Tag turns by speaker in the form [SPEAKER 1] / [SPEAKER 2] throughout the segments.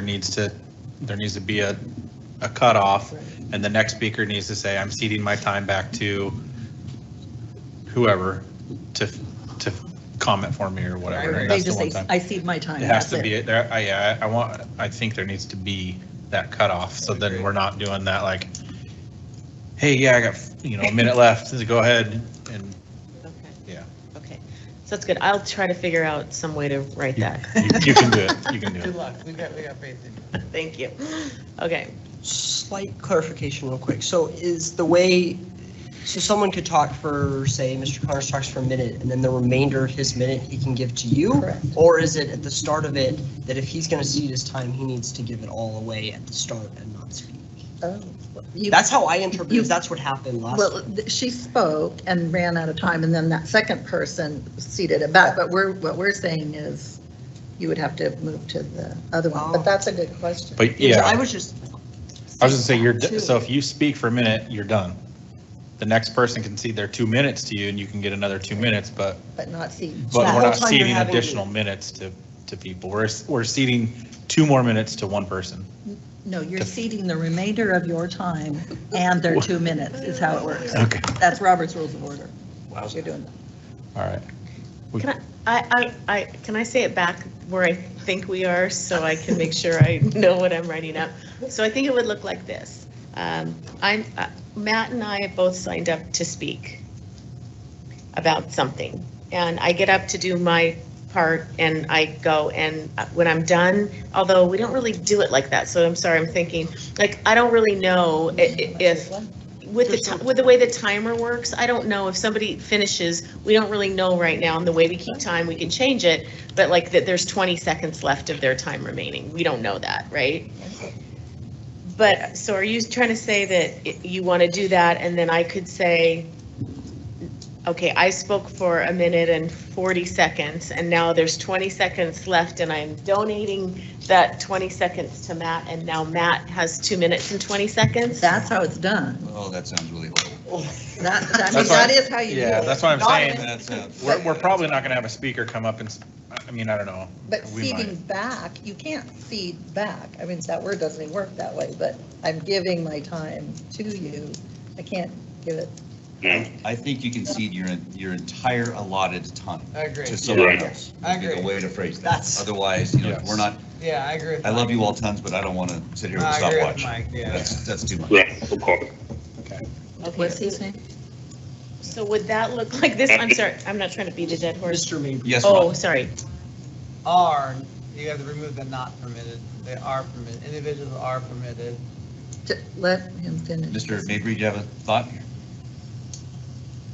[SPEAKER 1] there needs to, there needs to be a, a cutoff, and the next speaker needs to say, I'm ceding my time back to whoever to, to comment for me or whatever.
[SPEAKER 2] Right,
[SPEAKER 1] and
[SPEAKER 2] right.
[SPEAKER 1] That's the
[SPEAKER 2] They just
[SPEAKER 1] one
[SPEAKER 2] say,
[SPEAKER 1] time.
[SPEAKER 2] I cede my time.
[SPEAKER 1] It has
[SPEAKER 2] that's
[SPEAKER 1] to be, there, I, yeah, I I want, I think there needs to be that cutoff, so then
[SPEAKER 3] Agreed.
[SPEAKER 1] we're not doing that like, hey, yeah, I got, you know, a minute left, go ahead, and,
[SPEAKER 4] Okay,
[SPEAKER 1] yeah.
[SPEAKER 4] okay. So that's good. I'll try to figure out some way to write
[SPEAKER 1] You
[SPEAKER 4] that.
[SPEAKER 1] you- you can do it, you can do
[SPEAKER 3] Good
[SPEAKER 1] it.
[SPEAKER 3] luck, we got, we got faith in you.
[SPEAKER 4] Thank you. Okay,
[SPEAKER 5] Slight clarification real quick. So is the way, so someone could talk for, say, Mr. Connors talks for a minute, and then the remainder of his minute he can give to you?
[SPEAKER 2] Correct.
[SPEAKER 5] Or is it at the start of it, that if he's going to cede his time, he needs to give it all away at the start and not speak?
[SPEAKER 2] it. Oh, You-
[SPEAKER 5] That's how I interpret,
[SPEAKER 2] you-
[SPEAKER 5] it. that's what happened last.
[SPEAKER 2] Well, th- she spoke and ran out of time, and then that second person seated it back, but we're, what we're saying is you would have to move to the other one, but
[SPEAKER 5] Oh.
[SPEAKER 2] that's a good question.
[SPEAKER 1] But
[SPEAKER 5] So
[SPEAKER 1] yeah.
[SPEAKER 5] I was just,
[SPEAKER 1] I was gonna say, you're, d-
[SPEAKER 2] Two.
[SPEAKER 1] so if you speak for a minute, you're done. The next person can cede their two minutes to you and you can get another two minutes, but,
[SPEAKER 2] But not see.
[SPEAKER 1] but
[SPEAKER 5] that
[SPEAKER 1] we're
[SPEAKER 5] whole
[SPEAKER 1] not
[SPEAKER 5] time you're
[SPEAKER 1] ceding
[SPEAKER 5] having-
[SPEAKER 1] additional minutes to, to people. We're, we're ceding two more minutes to one person.
[SPEAKER 2] No, you're ceding the remainder of your time and their two minutes is how it works.
[SPEAKER 1] Okay.
[SPEAKER 2] That's Robert's Rules of Order. You're doing that.
[SPEAKER 1] All right. We-
[SPEAKER 4] can I, I, I, can I say it back where I think we are so I can make sure I know what I'm writing up? So I think it would look like this. Um, I'm, uh, Matt and I both signed up to speak about something. And I get up to do my part and I go and uh, when I'm done, although we don't really do it like that, so I'm sorry, I'm thinking, like, I don't really know i- i- if with the, ti- with the way the timer works, I don't know if somebody finishes, we don't really know right now, and the way we keep time, we can change it, but like that there's 20 seconds left of their time remaining, we don't know that, right? But, so are you trying to say that i- you want to do that, and then I could say, okay, I spoke for a minute and 40 seconds, and now there's 20 seconds left, and I'm donating that 20 seconds to Matt, and now Matt has two minutes and 20 seconds?
[SPEAKER 2] That's how it's done.
[SPEAKER 3] Oh, that sounds really horrible.
[SPEAKER 2] That, that- I mean,
[SPEAKER 1] That's why-
[SPEAKER 2] that is how you do
[SPEAKER 1] Yeah,
[SPEAKER 2] it.
[SPEAKER 1] that's what I'm saying.
[SPEAKER 3] That sounds.
[SPEAKER 1] We're, we're probably not gonna have a speaker come up and, s- I mean, I don't know.
[SPEAKER 2] But
[SPEAKER 1] We might.
[SPEAKER 2] feeding back, you can't feed back. I mean, that word doesn't even work that way, but I'm giving my time to you. I can't give it.
[SPEAKER 6] I think you can cede your, your entire allotted time
[SPEAKER 3] I agree.
[SPEAKER 6] to someone
[SPEAKER 3] Yeah.
[SPEAKER 6] else.
[SPEAKER 3] I
[SPEAKER 6] Would be
[SPEAKER 3] agree.
[SPEAKER 6] The way to phrase that.
[SPEAKER 5] That's-
[SPEAKER 6] Otherwise, you know,
[SPEAKER 1] Yes.
[SPEAKER 6] we're not,
[SPEAKER 3] Yeah, I agree. with
[SPEAKER 6] I love
[SPEAKER 3] Mike.
[SPEAKER 6] you all tons, but I don't want to sit here with a
[SPEAKER 3] I agree with
[SPEAKER 6] stopwatch.
[SPEAKER 3] Mike, yeah.
[SPEAKER 6] That's, that's too much.
[SPEAKER 7] Yeah, of course.
[SPEAKER 4] Okay.
[SPEAKER 2] name?
[SPEAKER 4] So would that look like this? I'm sorry, I'm not trying to beat a dead horse.
[SPEAKER 5] Mr. Mabry.
[SPEAKER 6] Yes,
[SPEAKER 4] Oh,
[SPEAKER 6] Ron?
[SPEAKER 4] sorry.
[SPEAKER 3] Are, you have to remove the not permitted, they are permitted, individuals are permitted.
[SPEAKER 2] Let him finish.
[SPEAKER 6] Mr. Mabry, do you have a thought?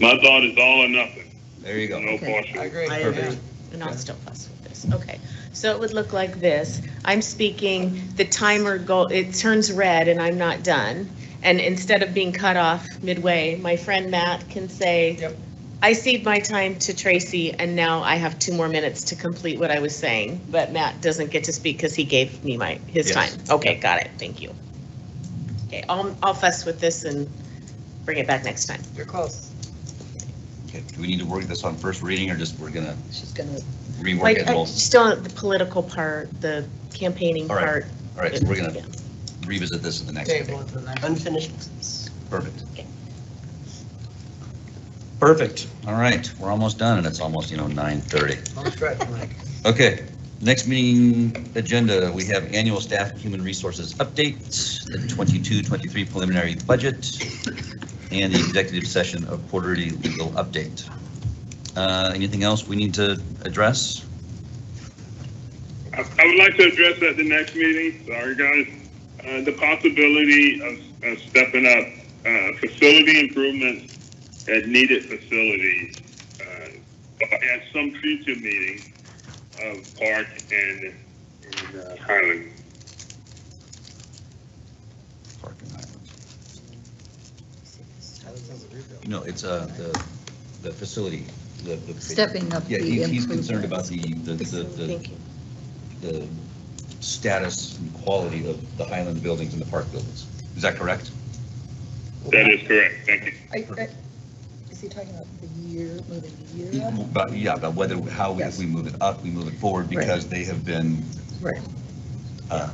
[SPEAKER 7] My thought is all or nothing,
[SPEAKER 6] There you
[SPEAKER 7] no
[SPEAKER 6] go.
[SPEAKER 2] Okay.
[SPEAKER 3] I
[SPEAKER 7] caution.
[SPEAKER 3] agree.
[SPEAKER 5] I
[SPEAKER 3] yeah.
[SPEAKER 5] agree.
[SPEAKER 4] And I'll still fuss with this. Okay. So it would look like this. I'm speaking, the timer go, it turns red and I'm not done. And instead of being cut off midway, my friend Matt can say,
[SPEAKER 3] Yep.
[SPEAKER 4] I cede my time to Tracy and now I have two more minutes to complete what I was saying. But Matt doesn't get to speak because he gave me my, his
[SPEAKER 6] Yes.
[SPEAKER 4] time. Okay, got it. Thank you. Okay, I'll, I'll fuss with this and bring it back next time.
[SPEAKER 3] You're close.
[SPEAKER 6] Okay, Do we need to work this on first reading or just we're gonna
[SPEAKER 2] She's gonna,
[SPEAKER 6] rework
[SPEAKER 4] Like,
[SPEAKER 6] it?
[SPEAKER 4] I-
[SPEAKER 6] Well,
[SPEAKER 4] still on the political part, the campaigning
[SPEAKER 6] All right.
[SPEAKER 4] part.
[SPEAKER 6] All right, so we're gonna
[SPEAKER 4] Yeah.
[SPEAKER 6] revisit this in the next
[SPEAKER 3] Table
[SPEAKER 6] meeting.
[SPEAKER 3] to the next.
[SPEAKER 5] Unfinished business.
[SPEAKER 6] Perfect. Perfect. All right, we're almost done and it's almost, you know, 9:30.
[SPEAKER 3] Don't stretch, Mike.
[SPEAKER 6] Okay, next meeting agenda, we have annual staff and human resources update, the 22-23 preliminary budget, and the executive session of quarterly legal update. Uh, Anything else we need to address?
[SPEAKER 7] I I would like to address at the next meeting, sorry guys, uh, the possibility of, of stepping up, uh, facility improvements at needed facilities, uh, at some future meeting of Park and, and uh, Highland.
[SPEAKER 6] Park and Highlands. No, it's uh, the, the facility, the. the-
[SPEAKER 2] stepping up the
[SPEAKER 6] Yeah, he- he's concerned about
[SPEAKER 2] improvements.
[SPEAKER 6] the, the, the- the,
[SPEAKER 4] Thank you.
[SPEAKER 6] the status and quality of the Highland buildings and the Park buildings. Is that correct?
[SPEAKER 7] That is correct, thank you.
[SPEAKER 2] Are- are- Is he talking about the year, moving the year up?
[SPEAKER 6] But, yeah, about whether, how, we- if
[SPEAKER 2] Yes.
[SPEAKER 6] we move it up, we move it forward,
[SPEAKER 2] Right.
[SPEAKER 6] because they have been
[SPEAKER 2] Right.
[SPEAKER 6] uh,